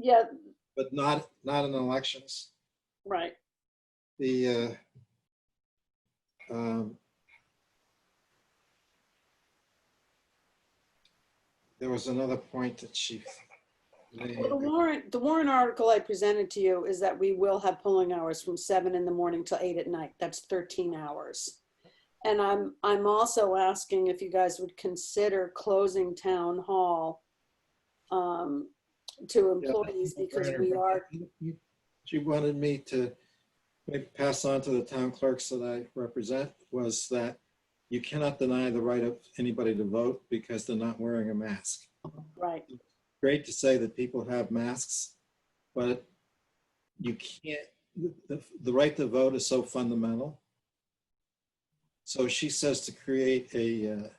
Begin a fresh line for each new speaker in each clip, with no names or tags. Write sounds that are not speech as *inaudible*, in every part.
yeah,
but not, not in elections.
right.
The, uh, um, there was another point that she made.
Well, The warrant, the warrant article I presented to you is that we will have polling hours from seven in the morning till eight at night. That's 13 hours. And I'm, I'm also asking if you guys would consider closing town hall um, to employees because we are,
She wanted me to maybe pass on to the town clerks that I represent was that you cannot deny the right of anybody to vote because they're not wearing a mask.
right,
great to say that people have masks, but you can't, the- the, the right to vote is so fundamental. So she says to create a,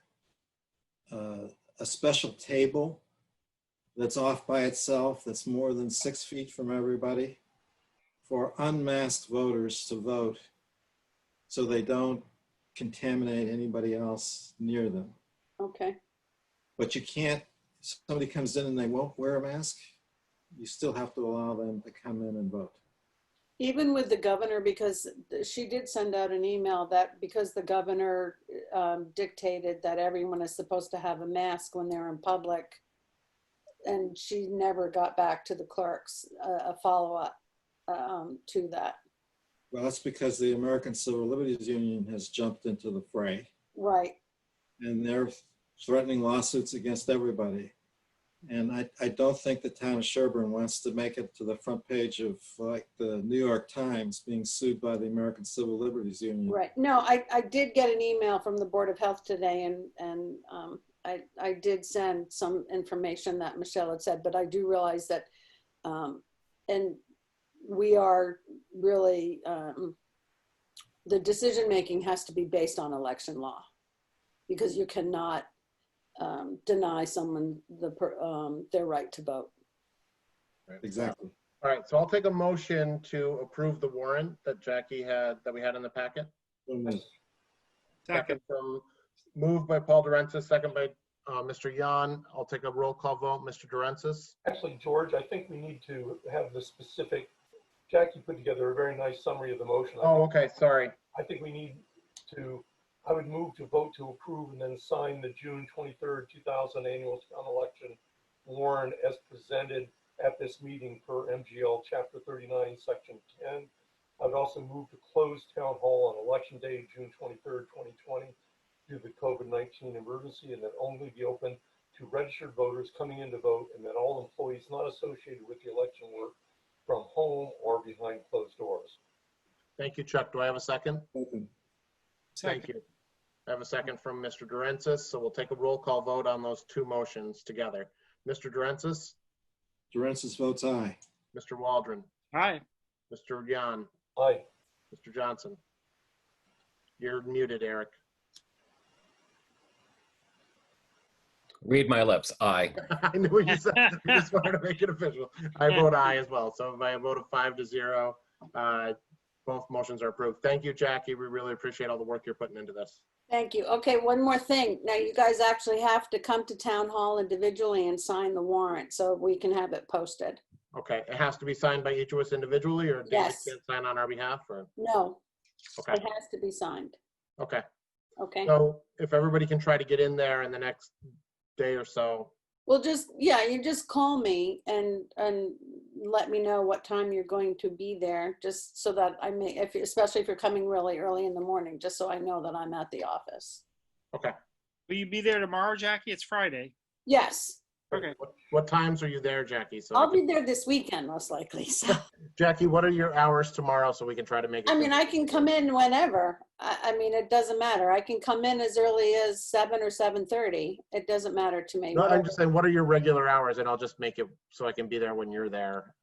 uh, uh, a special table that's off by itself, that's more than six feet from everybody for unmasked voters to vote so they don't contaminate anybody else near them.
okay.
But you can't, somebody comes in and they won't wear a mask, you still have to allow them to come in and vote.
Even with the governor, because she did send out an email that because the governor um, dictated that everyone is supposed to have a mask when they're in public, and she never got back to the clerks uh, a, a follow up um, to that.
Well, that's because the American Civil Liberties Union has jumped into the fray
Right.
and they're threatening lawsuits against everybody. And I, I don't think the town of Sherburne wants to make it to the front page of like the New York Times being sued by the American Civil Liberties Union.
Right. No, I, I did get an email from the Board of Health today and, and um, I, I did send some information that Michelle had said, but I do realize that, um, and we are really, um, the decision-making has to be based on election law. Because you cannot, um, deny someone the, per- um, their right to vote.
Exactly.
All right, so I'll take a motion to approve the warrant that Jackie had, that we had in the packet. Second from, moved by Paul Durensis, second by uh, Mr. Yan. I'll take a roll call vote. Mr. Durensis?
Actually, George, I think we need to have the specific, Jackie put together a very nice summary of the motion. I
Oh, okay, sorry.
I think we need to, I would move to vote to approve and then sign the June twenty-third, two thousand annual town election warrant as presented at this meeting per MGL chapter thirty-nine, section ten. I would also move to close town hall on election day, June twenty-third, twenty twenty, due to the COVID-nineteen emergency and then only be open to registered voters coming in to vote and then all employees not associated with the election work from home or behind closed doors.
Thank you, Chuck. Do I have a second?
Open.
Thank you. I have a second from Mr. Durensis, so we'll take a roll call vote on those two motions together. Mr. Durensis,
Durensis votes aye.
Mr. Waldron,
Hi.
Mr. Yan,
Aye.
Mr. Johnson. You're muted, Eric.
Read my lips. Aye.
*laughs* I knew what you said. I just wanted to make it official. I vote aye as well. So by a vote of five to zero, uh, both motions are approved. Thank you, Jackie. We really appreciate all the work you're putting into this.
Thank you. Okay, one more thing. Now, you guys actually have to come to town hall individually and sign the warrant so we can have it posted.
Okay, it has to be signed by each of us individually, or David
Yes.
can't sign on our behalf, or,
No,
okay,
it has to be signed,
okay.
okay?
So if everybody can try to get in there in the next day or so,
Well, just, yeah, you just call me and, and let me know what time you're going to be there, just so that I may, if, especially if you're coming really early in the morning, just so I know that I'm at the office.
Will you be there tomorrow, Jackie? It's Friday.
Yes,
Okay.
what- what times are you there, Jackie? So,
I'll
we
be
can-
there this weekend, most likely, *laughs* so.
Jackie, what are your hours tomorrow, so we can try to make it?
I mean, I can come in whenever. I, I mean, it doesn't matter. I can come in as early as seven or seven thirty. It doesn't matter to me.
No, I'm
whatever.
just saying, what are your regular hours, and I'll just make it so I can be there when you're there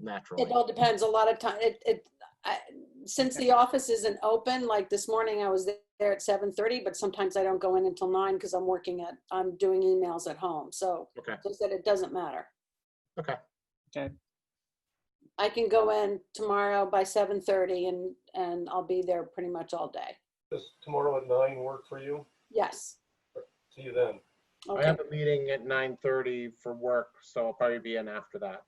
naturally.
It all depends. A lot of time, it, it, I- since the office isn't open, like this morning I was there at seven thirty, but sometimes I don't go in until nine because I'm working at, I'm doing emails at home. So
Okay.
just that it doesn't matter.
Okay.
Okay.
I can go in tomorrow by seven thirty and, and I'll be there pretty much all day.
Does tomorrow at nine work for you?
Yes.
See you then.
I
Okay.
have a meeting at nine thirty for work, so I'll probably be in after that.